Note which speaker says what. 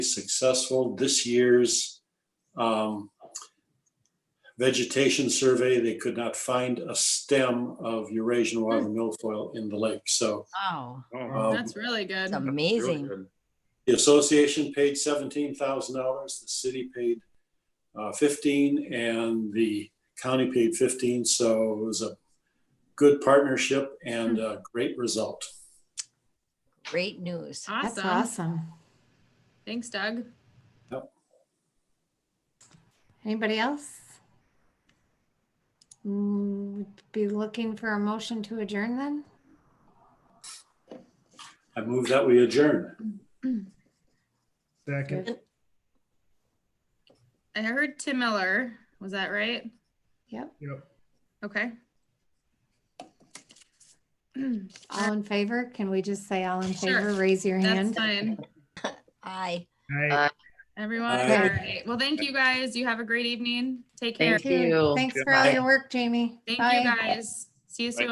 Speaker 1: successful. This year's um, vegetation survey, they could not find a stem of Eurasian water milfoil in the lake. So
Speaker 2: Wow,
Speaker 1: Um,
Speaker 3: That's really good.
Speaker 2: it's amazing.
Speaker 1: the association paid seventeen thousand dollars, the city paid uh, fifteen, and the county paid fifteen. So it was a good partnership and a great result.
Speaker 2: Great news.
Speaker 4: That's
Speaker 3: Awesome.
Speaker 4: awesome.
Speaker 3: Thanks, Doug.
Speaker 4: Anybody else? Mm, we'd Be looking for a motion to adjourn then?
Speaker 1: I move that we adjourn.
Speaker 5: Second.
Speaker 3: I heard Tim Miller. Was that right?
Speaker 4: Yep.
Speaker 5: Yep.
Speaker 3: Okay.
Speaker 4: All in favor? Can we just say all in
Speaker 3: Uh, Sure.
Speaker 4: favor? Raise your
Speaker 3: That's
Speaker 4: hand.
Speaker 3: fine.
Speaker 2: Aye.
Speaker 5: Aye.
Speaker 3: Everyone, all
Speaker 1: Aye.
Speaker 3: right. Well, thank you guys. You have a great evening. Take care.
Speaker 6: Thank
Speaker 3: Thank
Speaker 4: Dude,
Speaker 6: you.
Speaker 4: Thanks for all your work, Jamie.
Speaker 3: you
Speaker 4: Bye.
Speaker 3: guys. See you soon.